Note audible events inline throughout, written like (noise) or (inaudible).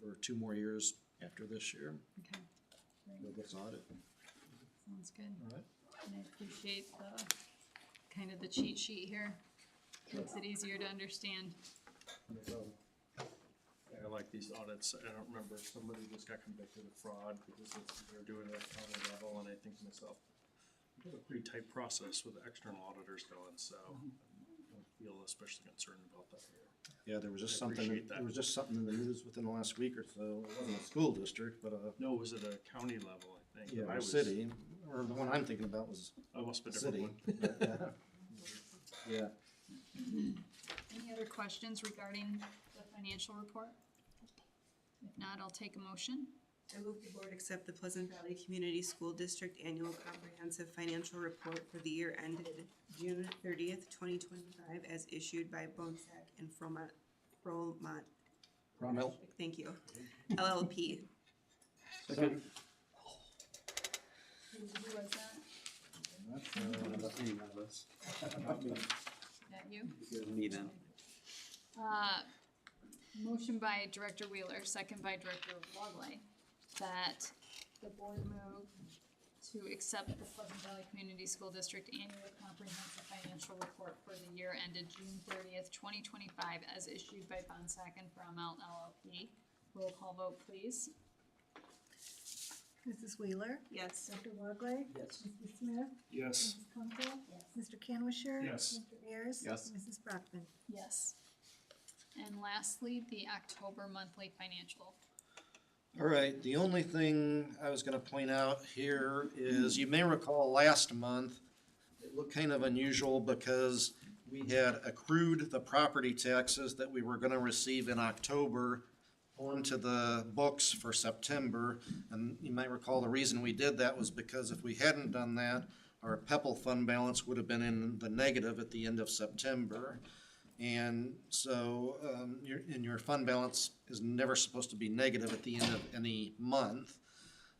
for two more years after this year, Okay, for this audit. sounds good. All right. And I appreciate the, kind of the cheat sheet here. Makes it easier to understand. I like these audits, I don't remember, somebody just got convicted of fraud because it's- they're doing it at county level, and I think to myself, we have a pretty tight process with external auditors going, so I don't feel especially concerned about that here. Yeah, there was just I something, appreciate there that. was just something in the news within the last week or so, it wasn't a school district, but a, No, it was at a county level, I think. yeah, I a was- city, or the one I'm thinking about was I must a have been a different city. one. but, yeah. (laughs) Yeah, Any other questions regarding the financial report? If not, I'll take a motion. I move the board accept the Pleasant Valley Community School District Annual Comprehensive Financial Report for the year ended June thirtieth, twenty twenty-five, as issued by Bonsack and Fromont, Fromont, Rommel. thank you, LLP. Second. Who was that? That you? Uh, motion by Director Wheeler, second by Director Logley, that the board move to accept the Pleasant Valley Community School District Annual Comprehensive Financial Report for the year ended June thirtieth, twenty twenty-five, as issued by Bonsack and Fromell LLP. Roll call vote, please. Mrs. Wheeler? Yes. Dr. Worgley? Yes. Mr. Smith? Yes. Mrs. Kunkel? Mr. Canwisher, Yes. Mr. Ayers? Yes. Mrs. Brockman? Yes. And lastly, the October monthly financial. All right, the only thing I was gonna point out here is, you may recall last month, it looked kind of unusual because we had accrued the property taxes that we were gonna receive in October onto the books for September, and you might recall the reason we did that was because if we hadn't done that, our PEPAL fund balance would have been in the negative at the end of September. And so, um, your, and your fund balance is never supposed to be negative at the end of any month.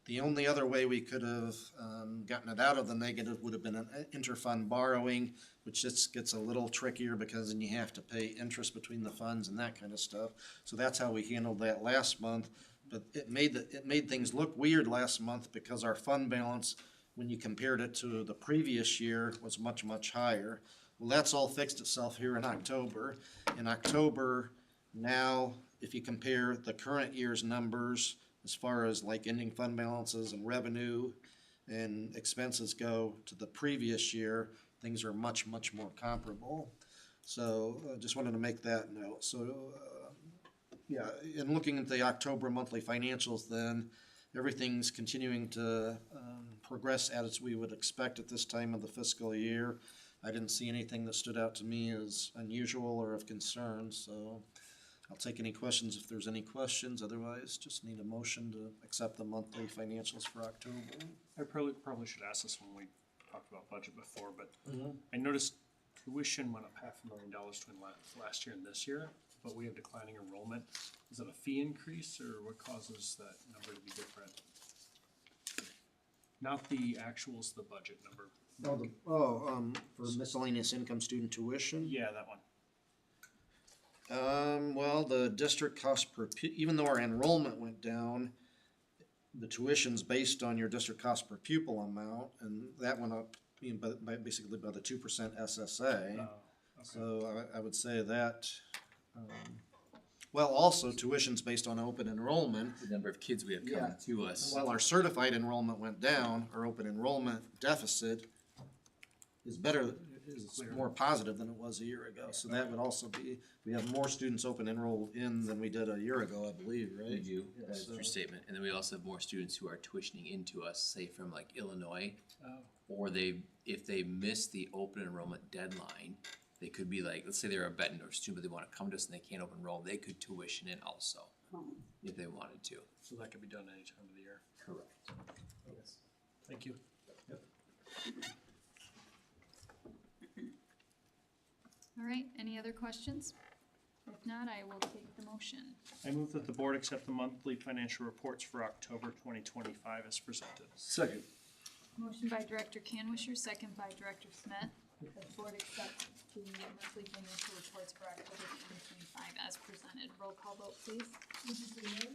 The only other way we could have, um, gotten it out of the negative would have been an uh, interfund borrowing, which just gets a little trickier because then you have to pay interest between the funds and that kind of stuff. So that's how we handled that last month, but it made, the- it made things look weird last month because our fund balance, when you compared it to the previous year, was much, much higher. Well, that's all fixed itself here in October. In October, now, if you compare the current year's numbers as far as like ending fund balances and revenue and expenses go to the previous year, things are much, much more comparable. So uh, just wanted to make that note. So, uh, yeah, in looking at the October monthly financials then, everything's continuing to um, progress as we would expect at this time of the fiscal year. I didn't see anything that stood out to me as unusual or of concern, so I'll take any questions if there's any questions. Otherwise, just need a motion to accept the monthly financials for October. I probably, probably should ask this when we talked about budget before, but I noticed tuition went up half a million dollars between last, last year and this year, but we have declining enrollment. Is that a fee increase or what causes that number to be different? Not the actuals, the budget number. Oh, the- Oh, um, for miscellaneous income student tuition? Yeah, that one. Um, well, the district cost per, pu- even though our enrollment went down, the tuition's based on your district cost per pupil amount, and that went up, you know, by, by basically by the two percent SSA. Oh, okay. So I, I would say that, um, well, also tuition's based on open enrollment. the number of kids we have coming to us. While our certified enrollment went down, our open enrollment deficit is better, is more positive than it was a year ago. So that would also be, we have more students open enrolled in than we did a year ago, I believe, We right? do, that's so- your statement, and then we also have more students who are tuitioning into us, say from like Illinois. Oh, Or they, if they miss the open enrollment deadline, they could be like, let's say they're a Bettendorf student, but they wanna come to us and they can't open enroll, they could tuition in also. If they wanted to. So that could be done any time of the year. Correct. Thank you. All right, any other questions? If not, I will take the motion. I move that the board accept the monthly financial reports for October twenty twenty-five as presented. Second. Motion by Director Canwisher, second by Director Smith, that the board accept the monthly financial reports for October twenty twenty-five as presented. Roll call vote, please. Mrs. Wheeler?